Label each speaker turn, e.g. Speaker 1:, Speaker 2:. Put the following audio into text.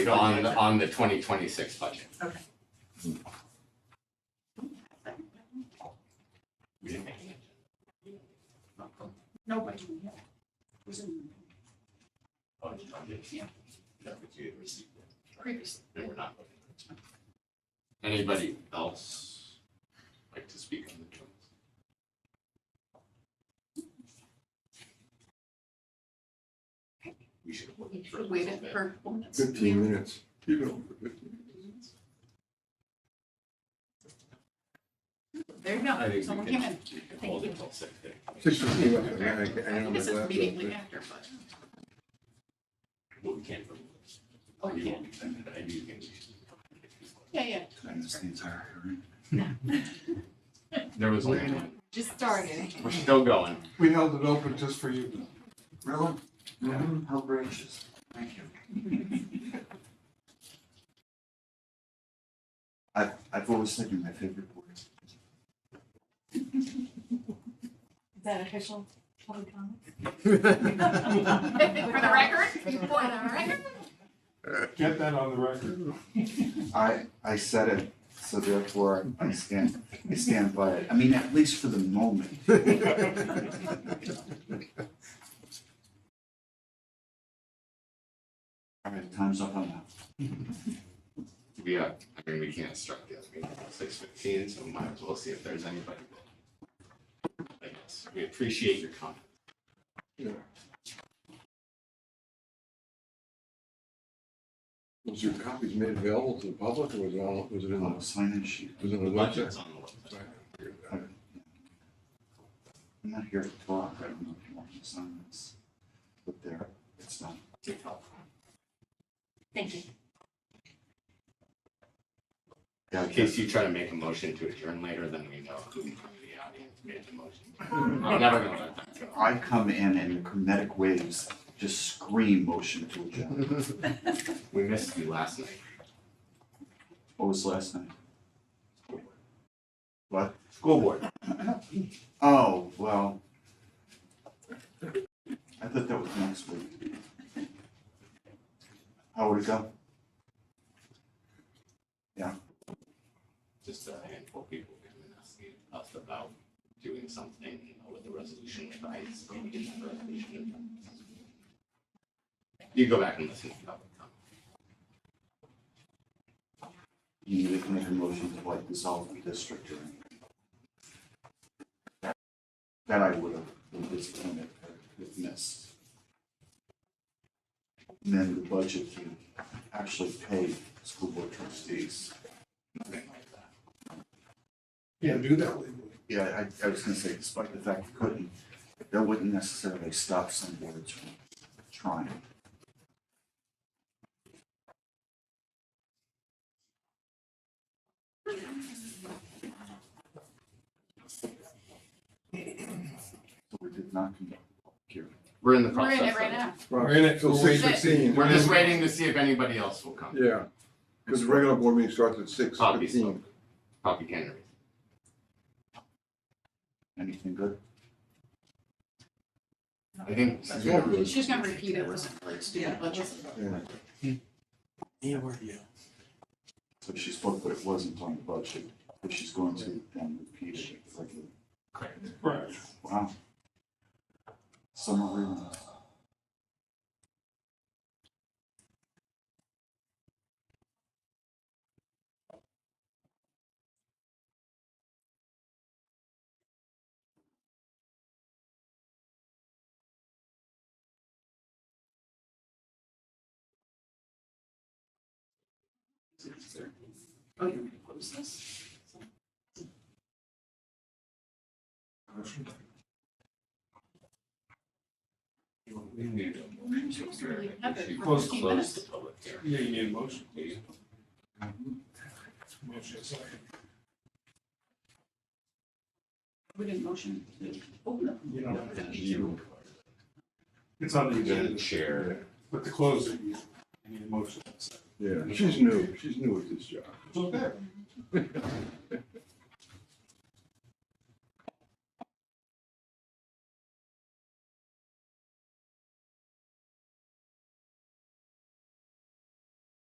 Speaker 1: on the, on the twenty twenty-six budget.
Speaker 2: Okay.
Speaker 1: We didn't make it.
Speaker 2: Nobody. Was in
Speaker 1: Oh, it's not this.
Speaker 2: Yeah.
Speaker 1: That was you received it.
Speaker 2: previous.
Speaker 1: They were not looking at it. Anybody else like to speak on the joint? We should.
Speaker 2: We should wait it for minutes.
Speaker 3: Fifteen minutes. You know,
Speaker 2: There you go.
Speaker 1: I think
Speaker 2: Someone
Speaker 1: we can-
Speaker 2: came in.
Speaker 1: we can
Speaker 2: Thank
Speaker 1: hold
Speaker 2: you.
Speaker 1: it till six thirty.
Speaker 3: six fifteen, I
Speaker 2: I
Speaker 3: think, I- I don't
Speaker 2: think this is
Speaker 3: know.
Speaker 2: immediately after, but
Speaker 1: Well, we can't. vote.
Speaker 2: Oh, we
Speaker 1: You won't accept it, but I do think we should.
Speaker 2: yeah, yeah.
Speaker 1: There was only one.
Speaker 4: Just started.
Speaker 1: We're still going.
Speaker 3: We held it open just for you.
Speaker 5: Really? How gracious. Thank you. I've, I've always said you're my favorite word.
Speaker 4: Is that official public comment?
Speaker 2: For the record, you want it on the record?
Speaker 3: Get that on the record.
Speaker 5: I, I said it, so therefore I stand, I stand by it. I mean, at least for the moment. All right, time's up on that.
Speaker 1: We are, I mean, we can't start the other meeting until six fifteen, so might as well see if there's anybody. there. I guess, we appreciate your comment.
Speaker 3: Was your copies made available to the public, or was it all, was it in
Speaker 5: Oh,
Speaker 3: the,
Speaker 5: sign in sheet.
Speaker 3: was it in
Speaker 1: The
Speaker 3: the
Speaker 1: budget's
Speaker 3: budget?
Speaker 1: on the website.
Speaker 5: I'm not here to talk, I don't know if you want to sign this, but there, it's done.
Speaker 4: Thank you.
Speaker 5: Yeah,
Speaker 1: In case you try to make a motion to adjourn later, then we know who from the audience made the motion. I'm never gonna let that go.
Speaker 5: I come in and the kinetic waves just scream motion to adjourn.
Speaker 1: We missed you last night.
Speaker 5: What was last night?
Speaker 1: School board.
Speaker 5: Oh, well. I thought that was next week. How would it go?
Speaker 1: just a handful of people came and asked me- us about doing something you know, with the resolution with ICE, maybe get that resolution. in place. You go back and listen to public comment.
Speaker 5: You need to make a motion to like dissolve the district or anything. That I would have been disappointed if missed. And then the budget to actually pay school board trustees.
Speaker 3: Can't do that legally.
Speaker 5: Yeah, I, I was gonna say, despite the fact you couldn't, that wouldn't necessarily stop some boards from trying. So we did not conduct a public hearing.
Speaker 1: We're in the
Speaker 2: We're
Speaker 1: process.
Speaker 2: in it right
Speaker 1: of-
Speaker 2: now.
Speaker 3: We're in it till
Speaker 2: We'll wait.
Speaker 3: six fifteen.
Speaker 1: We're just waiting to see if anybody else will come.
Speaker 3: Yeah, because the regular board meeting starts at six
Speaker 1: Poppy
Speaker 3: fifteen.
Speaker 1: spoke. Poppy Kennery.
Speaker 5: Anything good?
Speaker 1: I think.
Speaker 3: It's all good.
Speaker 2: She's gonna repeat it.
Speaker 5: Yeah.
Speaker 2: Stupid budget.
Speaker 3: Yeah.
Speaker 5: So she spoke, but it wasn't on the budget, but she's going to then repeat it. It's like a-
Speaker 3: Right.
Speaker 5: Wow. Summer reading.
Speaker 2: Oh, you're gonna close this?
Speaker 1: We need a motion to adjourn.
Speaker 2: Have it
Speaker 1: We should
Speaker 2: for
Speaker 1: Close
Speaker 2: 15
Speaker 1: the public hearing.
Speaker 3: Yeah, you need a motion.
Speaker 1: please.
Speaker 2: We didn't motion to open it.
Speaker 6: It's on the
Speaker 1: You're gonna
Speaker 6: agenda,
Speaker 1: chair.
Speaker 6: but the closing, I need a motion.
Speaker 3: Yeah, she's new, she's new at this job.
Speaker 6: It's okay.